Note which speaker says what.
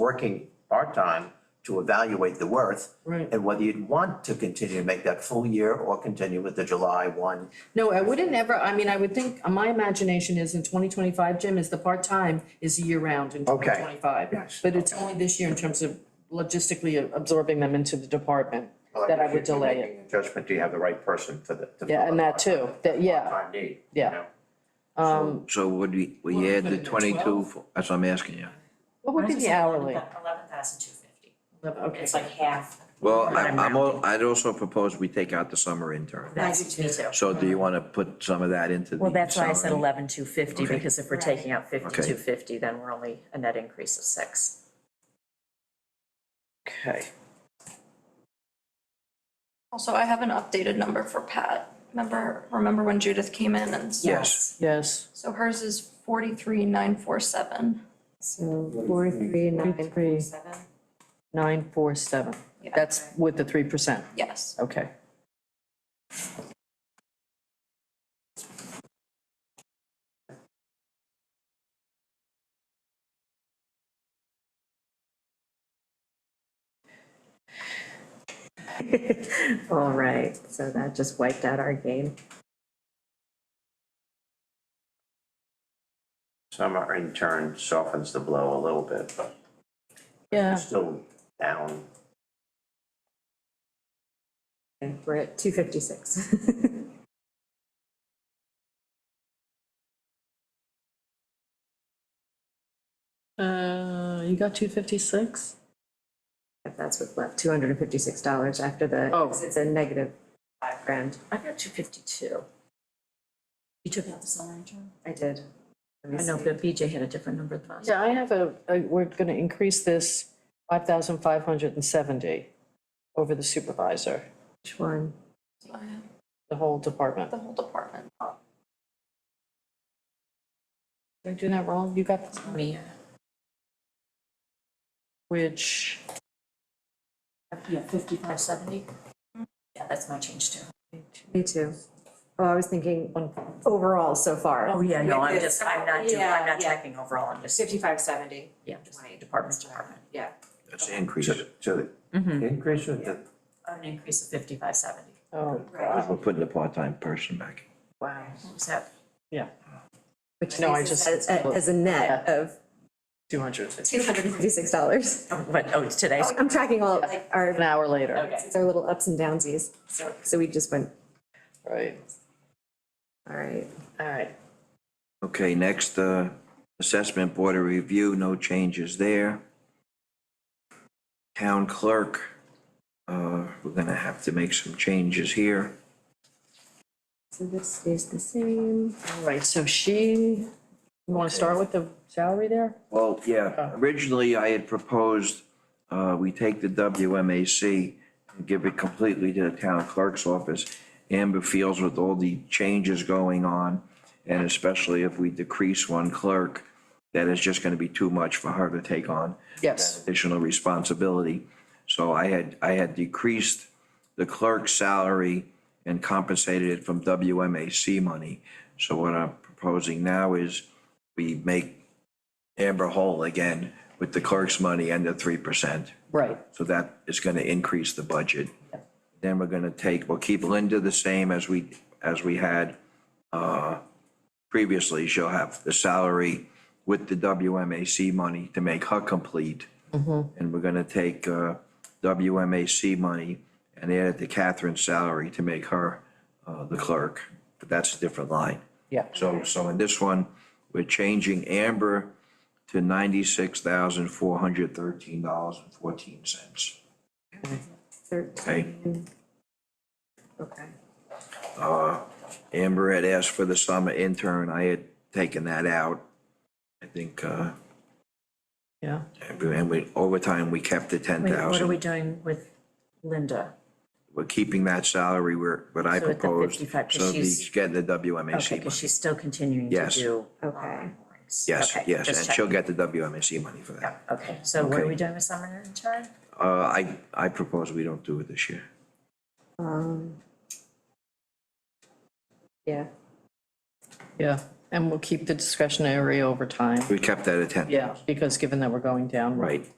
Speaker 1: working part-time to evaluate the worth
Speaker 2: Right.
Speaker 1: and whether you'd want to continue to make that full year or continue with the July one.
Speaker 2: No, I wouldn't ever, I mean, I would think, my imagination is in twenty twenty-five, Jim, is the part-time is year-round in
Speaker 1: Okay.
Speaker 2: twenty twenty-five.
Speaker 1: Yes.
Speaker 2: But it's only this year in terms of logistically absorbing them into the department, that I would delay it.
Speaker 1: Judgment, do you have the right person for the? to
Speaker 2: Yeah,
Speaker 1: fill
Speaker 2: and that too, that, yeah,
Speaker 1: part-time need, you
Speaker 2: Yeah.
Speaker 1: know?
Speaker 2: um,
Speaker 3: So would we,
Speaker 4: Well,
Speaker 3: we add the
Speaker 4: couldn't it be
Speaker 3: twenty-two,
Speaker 4: 12?
Speaker 3: for- that's what I'm asking you.
Speaker 2: what would be the hourly?
Speaker 4: Eleven thousand two fifty.
Speaker 2: Okay,
Speaker 4: It's like half.
Speaker 3: Well, I-
Speaker 4: I'm
Speaker 3: I'm, al-
Speaker 4: rounding.
Speaker 3: I'd also propose we take out the summer intern.
Speaker 4: That's me too.
Speaker 3: So do you want to put some of that into the
Speaker 5: Well, that's why I said
Speaker 3: salary?
Speaker 5: eleven two fifty,
Speaker 3: Okay.
Speaker 5: because if we're taking out fifty-two fifty, then we're only a net increase of six.
Speaker 2: Okay.
Speaker 6: Also, I have an updated number for Pat. Remember, remember when Judith came in and, s-
Speaker 3: Yes.
Speaker 2: yes,
Speaker 6: so hers is forty-three, nine, four, seven.
Speaker 2: so four, three, nine, three,
Speaker 4: Seven.
Speaker 2: nine, four, seven,
Speaker 6: Yeah.
Speaker 2: that's with the three percent,
Speaker 6: Yes.
Speaker 2: okay.
Speaker 5: All right, so that just wiped out our game.
Speaker 1: Summer intern softens the blow a little bit, but
Speaker 2: Yeah,
Speaker 1: still down.
Speaker 5: We're at two fifty-six.
Speaker 2: uh, you got two fifty-six?
Speaker 7: If that's what's left, two hundred and fifty-six dollars after the,
Speaker 2: Oh.
Speaker 7: because it's a negative five grand.
Speaker 5: I got two fifty-two. You took out the summer intern?
Speaker 7: I did. Let me
Speaker 5: I know,
Speaker 7: see.
Speaker 5: but BJ had a different number than us.
Speaker 2: Yeah, I have a, a- we're gonna increase this five thousand five hundred and seventy over the supervisor,
Speaker 7: Which one?
Speaker 6: So I have
Speaker 2: the whole department.
Speaker 6: The whole department.
Speaker 2: Did I do that wrong? You got, this?
Speaker 5: Me, uh,
Speaker 2: which,
Speaker 5: yeah, fifty-five seventy? Yeah, that's my change too.
Speaker 7: Me too. Oh, I was thinking
Speaker 2: one,
Speaker 7: overall so far.
Speaker 5: Oh, yeah, no, I'm
Speaker 4: With the
Speaker 5: just, I'm not doing, I'm
Speaker 4: yeah,
Speaker 5: not
Speaker 4: yeah.
Speaker 5: checking overall, I'm just,
Speaker 4: Fifty-five seventy.
Speaker 5: yeah, just department, department.
Speaker 4: Yeah.
Speaker 3: That's the increase.
Speaker 1: So
Speaker 2: Mm-hmm.
Speaker 1: the increase with the
Speaker 5: An increase of fifty-five seventy.
Speaker 2: oh,
Speaker 4: Right.
Speaker 3: We're putting the part-time person back.
Speaker 2: wow.
Speaker 5: What was that?
Speaker 7: Which
Speaker 2: No, I
Speaker 7: leaves us
Speaker 2: just-
Speaker 7: As, as a net
Speaker 2: Yeah.
Speaker 7: of
Speaker 2: Two hundred and fifty.
Speaker 7: two hundred and fifty-six dollars.
Speaker 5: Oh, What, oh, it's today's?
Speaker 7: I'm tracking all of
Speaker 2: An
Speaker 7: our,
Speaker 2: hour later,
Speaker 5: Okay.
Speaker 7: it's our little ups and downsies.
Speaker 5: So-
Speaker 7: So we just went,
Speaker 2: right,
Speaker 7: all right.
Speaker 2: all right.
Speaker 3: Okay, next, uh, assessment board of review, no changes there. Town clerk, uh, we're gonna have to make some changes here.
Speaker 7: So this stays the same.
Speaker 2: All right, so she, you wanna start with the salary there?
Speaker 3: Well, yeah,
Speaker 2: Oh.
Speaker 3: originally I had proposed, uh, we take the WMAC and give it completely to the town clerk's office. Amber feels with all the changes going on, and especially if we decrease one clerk, that is just gonna be too much for her to take on.
Speaker 2: Yes.
Speaker 3: Additional responsibility. So I had, I had decreased the clerk's salary and compensated it from WMAC money. So what I'm proposing now is we make Amber whole again with the clerk's money and the three percent.
Speaker 2: Right,
Speaker 3: So that is gonna increase the budget. Then we're gonna take, we'll keep Linda the same as we, as we had, uh, previously. She'll have the salary with the WMAC money to make her complete. And we're gonna take, uh, WMAC money and add it to Catherine's salary to make her, uh, the clerk. But that's a different line.
Speaker 2: yeah,
Speaker 3: So, so in this one, we're changing Amber to ninety-six thousand four hundred thirteen dollars and fourteen cents. Okay,
Speaker 7: Okay.
Speaker 3: uh, Amber had asked for the summer intern, I had taken that out. I think, uh,
Speaker 2: yeah.
Speaker 3: and we, over time, we kept the ten
Speaker 5: Wait, what are we
Speaker 3: thousand.
Speaker 5: doing with Linda?
Speaker 3: We're keeping that salary where, what I
Speaker 5: So at the
Speaker 3: proposed,
Speaker 5: 55, 'cause
Speaker 3: so
Speaker 5: she's-
Speaker 3: she's getting the
Speaker 5: Okay,
Speaker 3: WMAC
Speaker 5: because
Speaker 3: money.
Speaker 5: she's still continuing to
Speaker 3: Yes.
Speaker 5: do.
Speaker 7: Okay.
Speaker 5: onboardings.
Speaker 3: Yes,
Speaker 5: Okay,
Speaker 3: yes,
Speaker 5: just
Speaker 3: and she'll
Speaker 5: checking.
Speaker 3: get the WMAC money for that.
Speaker 5: Okay, so what are
Speaker 3: Okay.
Speaker 5: we doing with summer intern?
Speaker 3: Uh, I, I propose we don't do it this year.
Speaker 7: Um. Yeah.
Speaker 2: Yeah, and we'll keep the discretionary over time.
Speaker 3: We kept that at ten.
Speaker 2: Yeah, because given that we're going down,
Speaker 3: Right.